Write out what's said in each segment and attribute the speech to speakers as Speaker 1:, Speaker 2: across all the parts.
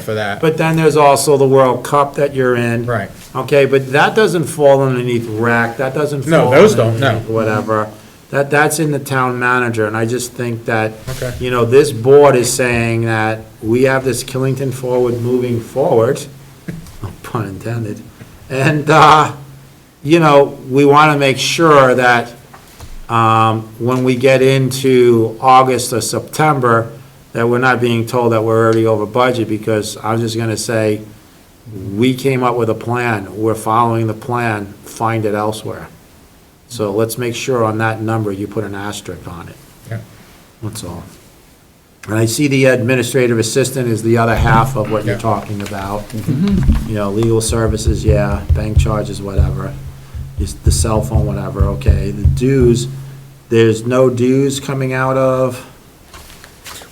Speaker 1: for that.
Speaker 2: But then there's also the World Cup that you're in.
Speaker 1: Right.
Speaker 2: Okay, but that doesn't fall underneath rec, that doesn't
Speaker 1: No,
Speaker 2: fall.
Speaker 1: those don't, no.
Speaker 2: underneath Whatever. That, that's in the town manager, and I just think that,
Speaker 1: Okay.
Speaker 2: you know, this board is saying that we have this Killington Forward moving forward, no pun intended, and, uh, you know, we want to make sure that um, when we get into August or September, that we're not being told that we're already over budget, because I'm just going to say, we came up with a plan, we're following the plan, find it elsewhere. So let's make sure on that number, you put an asterisk on it.
Speaker 1: Yeah.
Speaker 2: That's all. And I see the administrative assistant is the other half of what you're
Speaker 1: Yeah.
Speaker 2: talking about. You know, legal services, yeah, bank charges, whatever, just the cell phone, whatever, okay. The dues, there's no dues coming out of,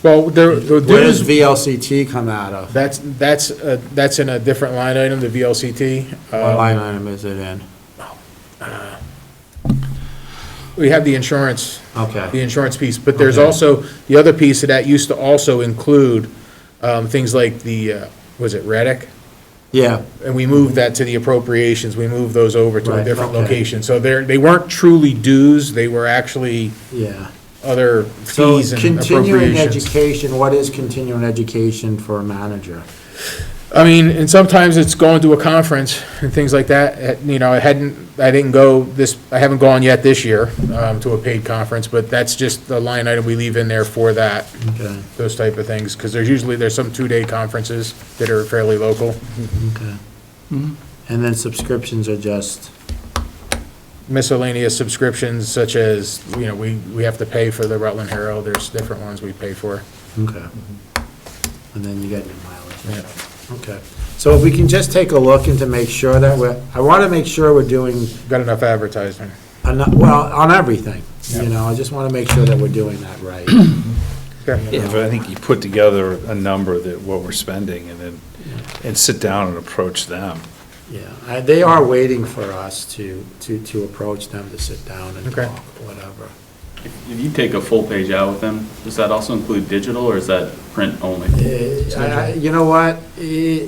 Speaker 1: Well, there, the
Speaker 2: where does
Speaker 1: dues,
Speaker 2: VLCT come out of?
Speaker 1: that's, that's, uh, that's in a different line item, the VLCT.
Speaker 2: What
Speaker 1: Uh,
Speaker 2: line item is it in?
Speaker 1: We have the insurance, the
Speaker 2: Okay,
Speaker 1: insurance piece, but there's
Speaker 2: Okay.
Speaker 1: also, the other piece of that used to also include um, things like the, uh, was it Reddick?
Speaker 2: yeah,
Speaker 1: And we moved that to the appropriations, we moved those over to a
Speaker 2: Right,
Speaker 1: different
Speaker 2: okay.
Speaker 1: location. So they're, they weren't truly dues, they were actually
Speaker 2: yeah.
Speaker 1: other
Speaker 2: So
Speaker 1: fees and
Speaker 2: continuing
Speaker 1: appropriations.
Speaker 2: education, what is continuing education for a manager?
Speaker 1: I mean, and sometimes it's going to a conference and things like that, Uh, you know, I hadn't, I didn't go this, I haven't gone yet this year um, to a paid conference, but that's just the line item we leave in there for that,
Speaker 2: Okay,
Speaker 1: those type of things, because there's usually, there's some two-day conferences that are fairly local.
Speaker 2: okay. Mm-hmm. And then subscriptions are just,
Speaker 1: Miscellaneous subscriptions such as, you know, we, we have to pay for the Rutland Herald, there's different ones we pay for.
Speaker 2: okay. And then you get your mileage,
Speaker 1: Yeah.
Speaker 2: okay. So if we can just take a look and to make sure that we're, I want to make sure we're doing,
Speaker 1: Got enough advertising.
Speaker 2: enough- well, on everything, you
Speaker 1: Yeah.
Speaker 2: know, I just want to make sure that we're doing that right.
Speaker 1: Okay.
Speaker 2: Yeah.
Speaker 3: But I think you put together a number that, what we're spending, and then, and sit down and approach them.
Speaker 2: Yeah, I- they are waiting for us to, to, to approach them, to sit down and
Speaker 1: Okay.
Speaker 2: talk, whatever.
Speaker 4: If you take a full page out with them, does that also include digital or is that print only?
Speaker 2: Eh, I- I- You know what? Eh,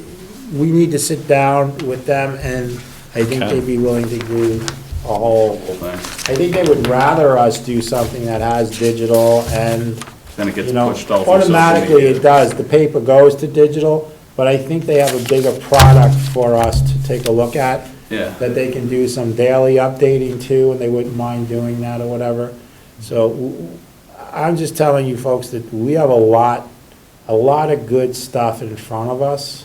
Speaker 2: We need to sit down with them, and I think
Speaker 3: Okay.
Speaker 2: they'd be willing to do a whole,
Speaker 4: Whole thing?
Speaker 2: I think they would rather us do something that has digital and,
Speaker 4: Then it gets
Speaker 2: you know,
Speaker 4: pushed all through social media.
Speaker 2: automatically it does. The paper goes to digital, but I think they have a bigger product for us to take a look at,
Speaker 4: Yeah,
Speaker 2: that they can do some daily updating too, and they wouldn't mind doing that or whatever. So w- I'm just telling you folks that we have a lot, a lot of good stuff in front of us.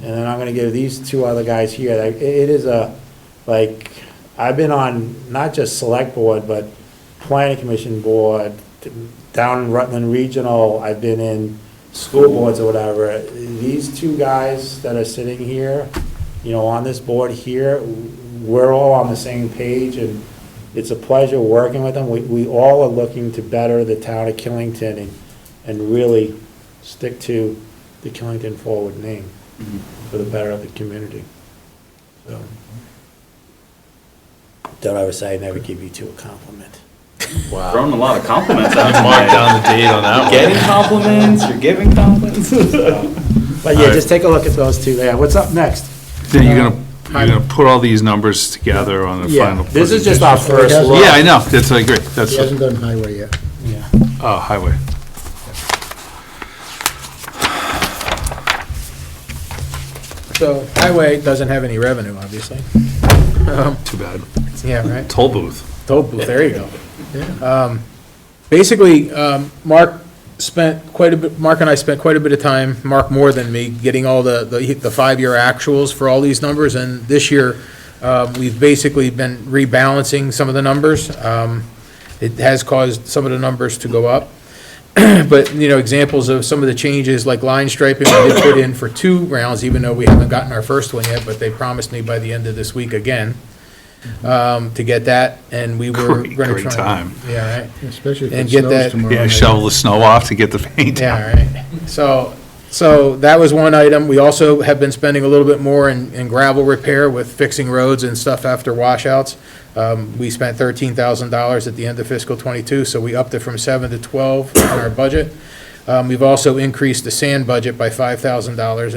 Speaker 2: And then I'm gonna give these two other guys here, like, it it is a, like, I've been on not just select board, but planning commission board, down in Rutland Regional, I've been in school boards or whatever. These two guys that are sitting here, you know, on this board here, we're all on the same page and it's a pleasure working with them. We, we all are looking to better the town of Killington and, and really stick to the Killington Forward name for the better of the community. So, Don't ever say I never give you two a compliment. Wow.
Speaker 4: throwing a lot of compliments out
Speaker 3: Mark
Speaker 4: tonight.
Speaker 3: down the date on that one.
Speaker 4: Getting compliments, you're giving compliments.
Speaker 2: But yeah, just take a look at those two there. What's up next?
Speaker 3: Then you're gonna, you're gonna put all these numbers together on the
Speaker 2: Yeah,
Speaker 3: final.
Speaker 2: this is just our first
Speaker 3: presentation.
Speaker 2: look.
Speaker 3: Yeah, I know, that's, I agree, that's,
Speaker 5: He hasn't done highway yet.
Speaker 2: Yeah.
Speaker 3: oh, highway.
Speaker 1: So highway doesn't have any revenue, obviously.
Speaker 3: Too bad.
Speaker 1: Yeah, right?
Speaker 3: Toll booth.
Speaker 1: Toll booth, there you go. Um, Basically, um, Mark spent quite a bit, Mark and I spent quite a bit of time, Mark more than me, getting all the, the the five-year actuals for all these numbers, and this year, um, we've basically been rebalancing some of the numbers. Um, It has caused some of the numbers to go up. But, you know, examples of some of the changes, like line striping, we did put in for two rounds, even though we haven't gotten our first one yet, but they promised me by the end of this week again um, to get that, and we were
Speaker 3: Great,
Speaker 1: gonna try.
Speaker 3: great time.
Speaker 1: Yeah, right.
Speaker 5: Especially if
Speaker 1: And
Speaker 5: it
Speaker 1: get
Speaker 5: snows
Speaker 1: that-
Speaker 5: tomorrow.
Speaker 3: Yeah,
Speaker 5: night.
Speaker 3: shovel the snow off to get the paint down.
Speaker 1: Yeah, right. So, so that was one item. We also have been spending a little bit more in, in gravel repair with fixing roads and stuff after washouts. Um, we spent thirteen thousand dollars at the end of fiscal twenty-two, so we upped it from seven to twelve on our budget. Um, we've also increased the sand budget by five thousand dollars